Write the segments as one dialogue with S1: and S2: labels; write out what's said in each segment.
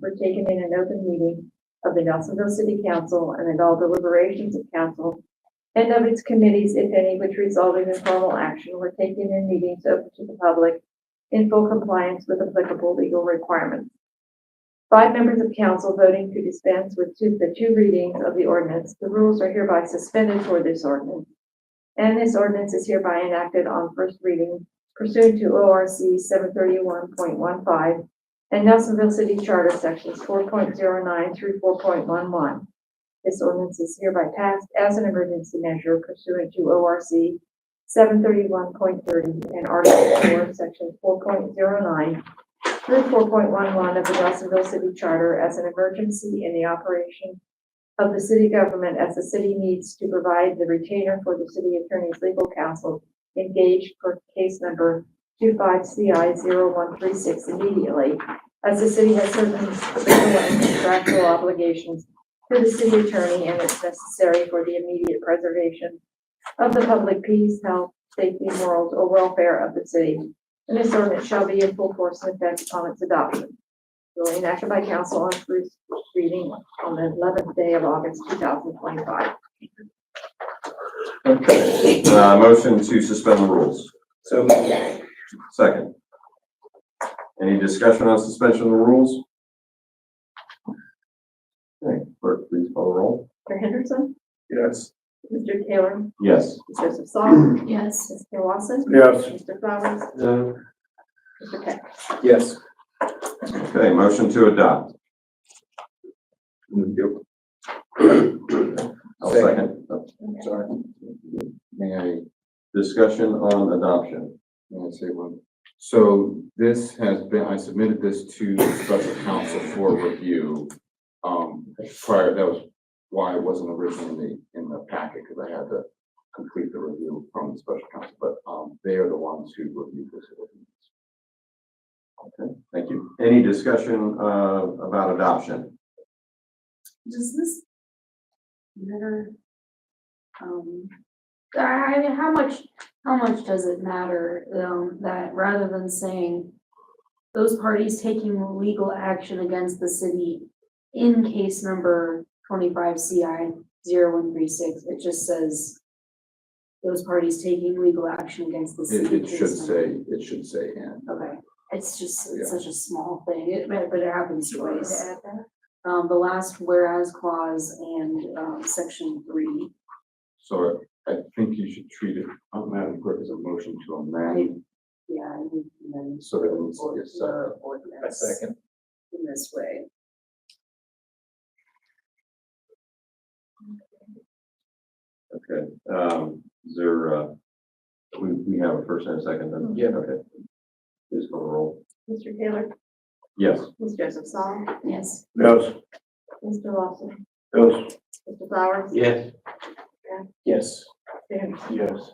S1: were taken in an open meeting of the Nelsonville City Council and in all deliberations of council and of its committees, if any, which resulted in formal action were taken in meetings open to the public in full compliance with applicable legal requirements. Five members of council voting to dispense with two, the two readings of the ordinance, the rules are hereby suspended for this ordinance. And this ordinance is hereby enacted on first reading pursuant to ORC seven thirty-one point one five and Nelsonville City Charter Sections four point zero nine through four point one one. This ordinance is hereby passed as an emergency measure pursuant to ORC seven thirty-one point thirty and Article four, Section four point zero nine through four point one one of the Nelsonville City Charter as an emergency in the operation of the city government as the city needs to provide the retainer for the city attorney's legal counsel engaged for case number two five CI zero one three six immediately, as the city has certain legal and contractual obligations to the city attorney and it's necessary for the immediate preservation of the public peace, health, safety, morals, or welfare of the city. And this ordinance shall be in full force and effect upon its adoption. Duly enacted by council on first reading on the eleventh day of August, two thousand twenty-five.
S2: Okay, uh, motion to suspend the rules.
S3: So
S2: Second. Any discussion on suspension of the rules? Okay, clerk, please call the roll.
S1: Mr. Henderson?
S3: Yes.
S1: Mr. Taylor?
S2: Yes.
S1: Mr. Joseph Saul?
S4: Yes.
S1: Mr. Lawson?
S3: Yes.
S1: Mr. Flowers?
S3: No.
S1: Mr. Peck?
S3: Yes.
S2: Okay, motion to adopt. I'll second.
S5: Sorry, may I,
S2: Discussion on adoption.
S5: may I say one? So this has been, I submitted this to the special counsel for review. Um, prior, that was why it wasn't originally in the, in the packet, because I had to complete the review from the special counsel, but, um, they are the ones who reviewed this.
S2: Thank you. Any discussion, uh, about adoption?
S4: Does this matter? Um, I I mean, how much, how much does it matter, um, that rather than saying those parties taking legal action against the city in case number twenty-five CI zero one three six, it just says those parties taking legal action against the
S5: It,
S4: city.
S5: it should
S4: case number-
S5: say, it should say and.
S4: Okay, it's just,
S5: Yeah.
S4: it's such a small thing, it, but but it happens twice.
S1: Add that.
S4: um, the last whereas clause and, um, section three.
S5: So I think you should treat it, uh, Madam Clerk, as a motion to amend,
S4: Yeah, I think, and then.
S5: so that it needs to be a second.
S3: A
S4: Ordinance
S3: second.
S4: in this way.
S2: Okay, um, is there, uh, we, we have a first and a second then?
S3: Yeah.
S2: Okay. Please call the roll.
S1: Mr. Taylor?
S2: Yes.
S1: Mr. Joseph Saul?
S4: Yes.
S3: Yes.
S1: Mr. Lawson?
S3: Yes.
S1: Mr. Flowers?
S3: Yes. Yes.
S1: Mr. Henderson?
S3: Yes.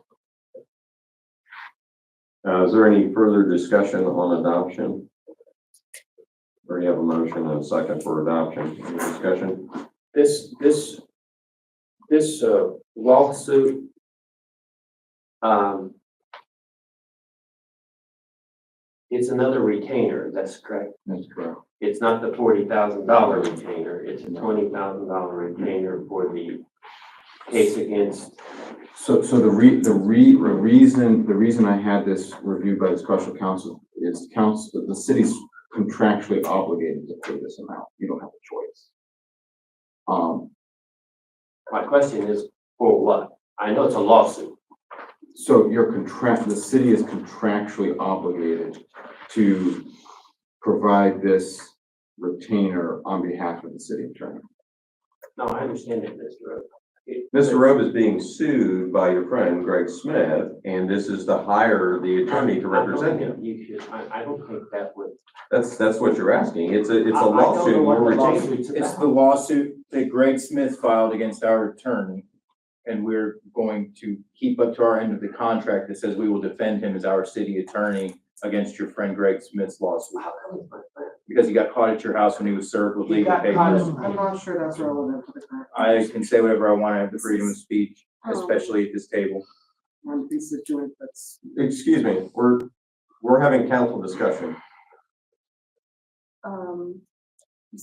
S2: Uh, is there any further discussion on adoption? Already have a motion and a second for adoption. Any discussion?
S3: This, this, this uh, lawsuit. Um. It's another retainer, that's correct.
S5: That's correct.
S3: It's not the forty thousand dollar retainer, it's a twenty thousand dollar retainer for the case against,
S5: So, so the re, the re, the reason, the reason I had this reviewed by the special counsel is council, the city's contractually obligated to pay this amount. You don't have a choice. Um,
S3: my question is, for what? I know it's a lawsuit,
S5: so your contract, the city is contractually obligated to provide this retainer on behalf of the city attorney.
S3: no, I understand that, Mr. Oak. It-
S2: Mr. Rove is being sued by your friend Greg Smith, and this is to hire the attorney to represent him.
S3: You should, I, I don't think that would.
S2: That's, that's what you're asking. It's a, it's
S3: I-
S2: a
S3: I don't know
S2: lawsuit.
S3: what
S2: We're
S3: the
S2: retaining.
S3: lawsuit's
S6: It's
S3: about.
S6: the lawsuit that Greg Smith filed against our attorney. And we're going to keep up to our end of the contract that says we will defend him as our city attorney against your friend Greg Smith's lawsuit.
S3: How come it's my friend?
S6: Because he got caught at your house when he was served with
S7: He
S6: legal
S7: got caught
S6: papers.
S7: in- I'm not sure that's relevant to the Oh. current.
S6: I can say whatever I want. I have the freedom of speech, especially at this table.
S7: Um, this is doing, that's,
S2: Excuse me, we're, we're having council discussion.
S4: Um,